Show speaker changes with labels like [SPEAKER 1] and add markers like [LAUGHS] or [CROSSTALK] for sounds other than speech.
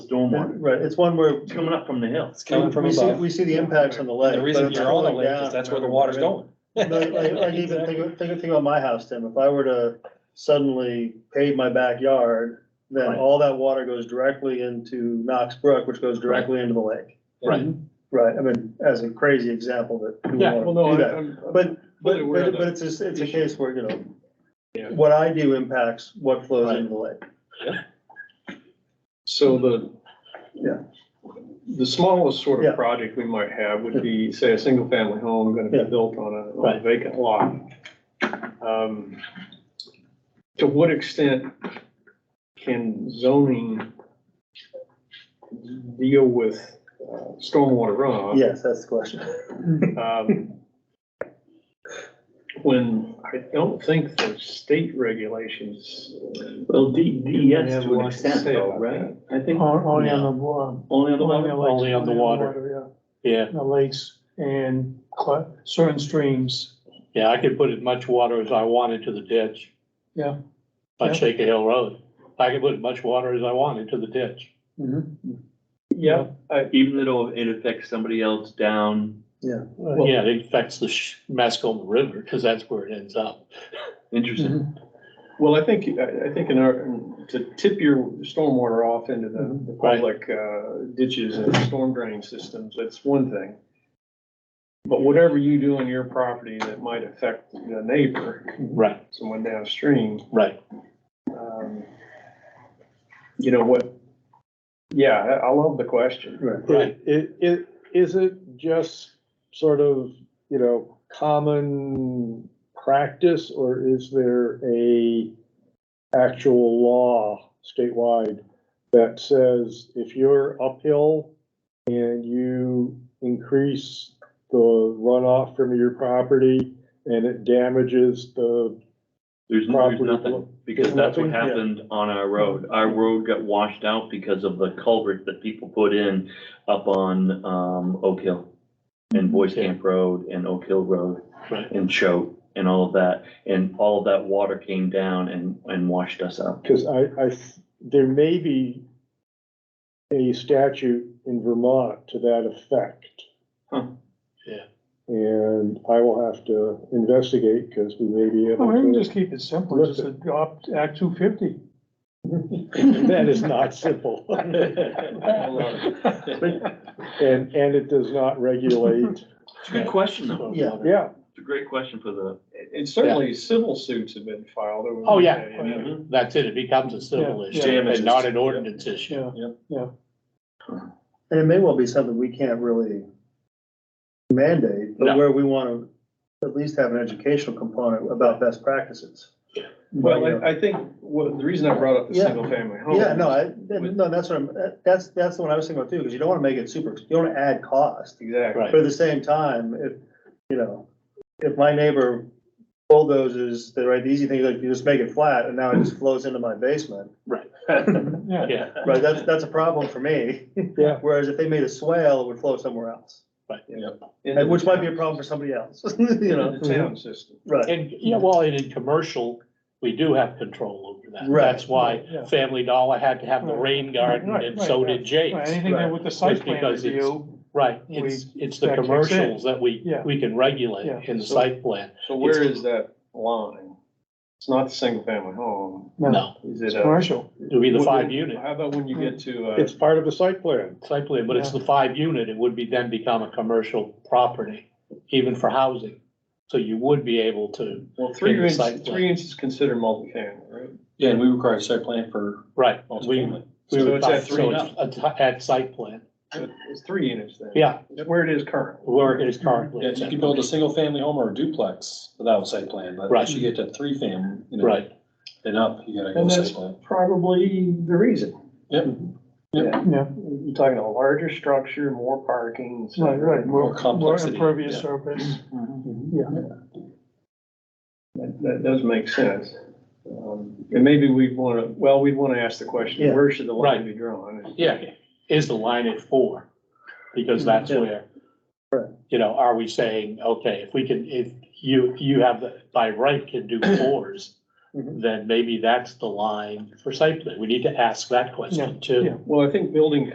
[SPEAKER 1] somewhat.
[SPEAKER 2] Right, it's one where
[SPEAKER 3] It's coming up from the hill.
[SPEAKER 4] It's coming from
[SPEAKER 2] we see,
[SPEAKER 4] above.
[SPEAKER 2] we see the impacts on the lake.
[SPEAKER 4] The
[SPEAKER 2] but
[SPEAKER 4] reason
[SPEAKER 2] it's
[SPEAKER 4] you're on the
[SPEAKER 2] flowing
[SPEAKER 4] lake
[SPEAKER 2] down
[SPEAKER 4] is that's where the
[SPEAKER 2] from
[SPEAKER 4] water's
[SPEAKER 2] everywhere.
[SPEAKER 4] going.
[SPEAKER 2] Like,
[SPEAKER 4] [LAUGHS]
[SPEAKER 2] like, like even
[SPEAKER 4] Exactly.
[SPEAKER 2] think, think, think about my house, Tim, if I were to suddenly pave my backyard, then
[SPEAKER 3] Right.
[SPEAKER 2] all that water goes directly into Knox Brook, which goes directly into the lake.
[SPEAKER 1] Right.
[SPEAKER 2] Right, I mean, as a crazy example that. we
[SPEAKER 1] Yeah,
[SPEAKER 2] wanna
[SPEAKER 1] well, no,
[SPEAKER 2] do
[SPEAKER 1] I-
[SPEAKER 2] that.
[SPEAKER 1] I'm. I'm
[SPEAKER 2] But,
[SPEAKER 1] fully
[SPEAKER 2] but,
[SPEAKER 1] aware of
[SPEAKER 2] but, but
[SPEAKER 1] that.
[SPEAKER 2] it's just, it's a
[SPEAKER 1] issue.
[SPEAKER 2] case where, you know,
[SPEAKER 1] Yeah.
[SPEAKER 2] what I do impacts what flows
[SPEAKER 4] Right.
[SPEAKER 2] into the lake.
[SPEAKER 1] So the.
[SPEAKER 2] Yeah.
[SPEAKER 1] The smallest sort
[SPEAKER 2] Yeah.
[SPEAKER 1] of project we might have would be, say, a single family home gonna be
[SPEAKER 2] Yeah.
[SPEAKER 1] built on a- on a
[SPEAKER 4] Right.
[SPEAKER 1] vacant lot. Um, To what extent can zoning deal with uh, stormwater runoff?
[SPEAKER 2] Yes, that's the question.
[SPEAKER 1] Um, When I don't think the state regulations.
[SPEAKER 3] Well, D,
[SPEAKER 1] Yeah,
[SPEAKER 3] DES
[SPEAKER 1] what
[SPEAKER 3] to
[SPEAKER 1] I
[SPEAKER 3] an extent
[SPEAKER 1] say
[SPEAKER 3] though,
[SPEAKER 1] about
[SPEAKER 3] right? I think
[SPEAKER 5] On- Only on
[SPEAKER 3] No.
[SPEAKER 5] the, wa-
[SPEAKER 3] only on the
[SPEAKER 5] only
[SPEAKER 3] water.
[SPEAKER 5] on lakes.
[SPEAKER 4] Only on the water. Yeah,
[SPEAKER 5] yeah, The lakes and cl- certain streams,
[SPEAKER 4] yeah, I could put as much water as I wanted to the ditch
[SPEAKER 5] yeah.
[SPEAKER 4] on
[SPEAKER 5] Yeah.
[SPEAKER 4] Shaker Hill Road. I could put as much water as I wanted to the ditch.
[SPEAKER 5] Mhm.
[SPEAKER 2] Mm-hmm.
[SPEAKER 1] Yeah,
[SPEAKER 3] Even though it affects somebody else down,
[SPEAKER 5] Uh,
[SPEAKER 4] Yeah, it affects the sh- Mascoma River because that's where it ends up.
[SPEAKER 3] interesting.
[SPEAKER 5] mhm.
[SPEAKER 1] Well, I think, I, I think in our, to tip your stormwater off into the, the
[SPEAKER 4] Right.
[SPEAKER 1] public uh, ditches and storm drain systems, that's one thing. But whatever you do on your property that might affect the neighbor,
[SPEAKER 4] Right,
[SPEAKER 1] someone downstream,
[SPEAKER 4] right.
[SPEAKER 1] um, you know what? Yeah, I, I love the question.
[SPEAKER 2] Right.
[SPEAKER 4] Right.
[SPEAKER 6] It, it, is it just sort of, you know, common practice, or is there a actual law statewide that says if you're uphill and you increase the runoff from your property and it damages the
[SPEAKER 3] There's no- there's
[SPEAKER 6] property?
[SPEAKER 3] nothing, because
[SPEAKER 6] There's
[SPEAKER 3] that's what
[SPEAKER 2] Yeah.
[SPEAKER 6] nothing?
[SPEAKER 3] happened on our road. Our road got washed out because of the culvert that people put in up on, um, Oak Hill. And Boys Camp Road and Oak Hill Road.
[SPEAKER 4] Right.
[SPEAKER 3] And Choate and all of that, and all of that water came down and, and washed us out.
[SPEAKER 6] Because I, I, th- there may be a statute in Vermont to that effect.
[SPEAKER 1] Huh.
[SPEAKER 4] Yeah.
[SPEAKER 6] And I will have to investigate because we may be able
[SPEAKER 5] Well, we can
[SPEAKER 6] to.
[SPEAKER 5] just keep it simple, just adopt Act two fifty.
[SPEAKER 6] [LAUGHS] That is
[SPEAKER 5] [LAUGHS]
[SPEAKER 6] not simple. And, and it does not
[SPEAKER 5] [LAUGHS]
[SPEAKER 6] regulate,
[SPEAKER 3] It's a good question though.
[SPEAKER 4] So, uh,
[SPEAKER 2] Yeah.
[SPEAKER 6] yeah,
[SPEAKER 3] It's a great question for the,
[SPEAKER 1] And certainly civil suits have been filed over.
[SPEAKER 4] Oh, yeah.
[SPEAKER 1] the day, you
[SPEAKER 6] Mm-hmm.
[SPEAKER 1] know.
[SPEAKER 4] That's it. It becomes a civil
[SPEAKER 5] Yeah,
[SPEAKER 4] issue
[SPEAKER 3] yeah.
[SPEAKER 4] and not an ordinance issue.
[SPEAKER 5] Yeah,
[SPEAKER 2] And it may well be something we can't really mandate, but
[SPEAKER 4] No.
[SPEAKER 2] where we wanna at least have an educational component about best practices.
[SPEAKER 1] Well, I, I think, what the reason I brought up the
[SPEAKER 2] Yeah.
[SPEAKER 1] single family home.
[SPEAKER 2] Yeah, no, I, no, that's what I'm, that's, that's the one I was thinking about too, because you don't wanna make it super, you don't wanna add cost.
[SPEAKER 1] Exactly.
[SPEAKER 2] But at the same time, if, you know, if my neighbor bulldozes, the right, the easy thing is like you just make it flat and now it just flows into my basement.
[SPEAKER 5] yeah.
[SPEAKER 4] Yeah,
[SPEAKER 2] Right, that's, that's a problem for me.
[SPEAKER 6] Yeah.
[SPEAKER 2] [LAUGHS] Whereas if they made a swale, it would flow somewhere else, and which might be a problem for somebody else, [LAUGHS] you know,
[SPEAKER 1] The town system.
[SPEAKER 2] right.
[SPEAKER 4] and, yeah, well, and in commercial, we do have control over that.
[SPEAKER 2] Right.
[SPEAKER 4] That's why
[SPEAKER 5] Yeah.
[SPEAKER 4] Family Dollar had to have the rain garden
[SPEAKER 5] Right,
[SPEAKER 4] and
[SPEAKER 5] right,
[SPEAKER 4] so
[SPEAKER 5] right.
[SPEAKER 4] did
[SPEAKER 5] Right,
[SPEAKER 4] Jake's.
[SPEAKER 5] Anything that with the site plan
[SPEAKER 4] Because it's-
[SPEAKER 5] review,
[SPEAKER 4] Right, it's, it's the
[SPEAKER 5] that kicks in.
[SPEAKER 4] commercials that we,
[SPEAKER 5] Yeah.
[SPEAKER 4] we can
[SPEAKER 5] Yeah.
[SPEAKER 4] regulate in the
[SPEAKER 1] So-
[SPEAKER 4] site plan,
[SPEAKER 1] So where is that line? It's not the single family home.
[SPEAKER 5] no,
[SPEAKER 4] no,
[SPEAKER 1] Is
[SPEAKER 5] it's
[SPEAKER 1] it uh, a?
[SPEAKER 5] commercial,
[SPEAKER 4] it would be the five unit
[SPEAKER 1] How about when you get to, uh,
[SPEAKER 6] it's part of the site plan.
[SPEAKER 4] site plan, but it's the five unit, it would be then become a commercial property, even for housing. So you would be able to,
[SPEAKER 1] well, three
[SPEAKER 4] in the site
[SPEAKER 1] inches,
[SPEAKER 4] plan.
[SPEAKER 1] three inches is considered multifamily, right?
[SPEAKER 7] Yeah, and we require a site plan for
[SPEAKER 4] right, we,
[SPEAKER 7] multifamily.
[SPEAKER 4] we
[SPEAKER 1] So
[SPEAKER 4] would,
[SPEAKER 1] it's
[SPEAKER 4] so
[SPEAKER 1] at
[SPEAKER 4] it's
[SPEAKER 1] three now.
[SPEAKER 4] at, at site plan,
[SPEAKER 1] So It's three units then.
[SPEAKER 4] yeah,
[SPEAKER 1] It's Where it is currently.
[SPEAKER 4] where it is currently.
[SPEAKER 7] Yeah, you can build a single family home or a duplex without a site plan, but
[SPEAKER 4] Right.
[SPEAKER 7] once you get to three fam, you know,
[SPEAKER 4] Right,
[SPEAKER 7] and up, you gotta go
[SPEAKER 1] And
[SPEAKER 7] site
[SPEAKER 1] that's-
[SPEAKER 7] plan.
[SPEAKER 1] Probably the reason.
[SPEAKER 7] Yep,
[SPEAKER 1] Yeah.
[SPEAKER 5] yeah,
[SPEAKER 1] You're talking a larger structure, more parking. so-
[SPEAKER 5] right, right.
[SPEAKER 7] More complexity,
[SPEAKER 5] More impervious
[SPEAKER 7] yeah.
[SPEAKER 5] surface,
[SPEAKER 1] That, that does make sense. Um, And maybe we'd want to, well, we'd want to ask the question,
[SPEAKER 2] Yeah.
[SPEAKER 1] where should the line
[SPEAKER 4] Right.
[SPEAKER 1] be drawn?
[SPEAKER 4] yeah, is the line at four? Because that's
[SPEAKER 2] Yeah.
[SPEAKER 4] where, you know, are we saying, okay, if we can, if you, you have, the by right can do fours,
[SPEAKER 2] Mhm.
[SPEAKER 4] then maybe that's the line for site plan, we need to ask that question too.
[SPEAKER 5] Yeah.
[SPEAKER 1] Well, I think building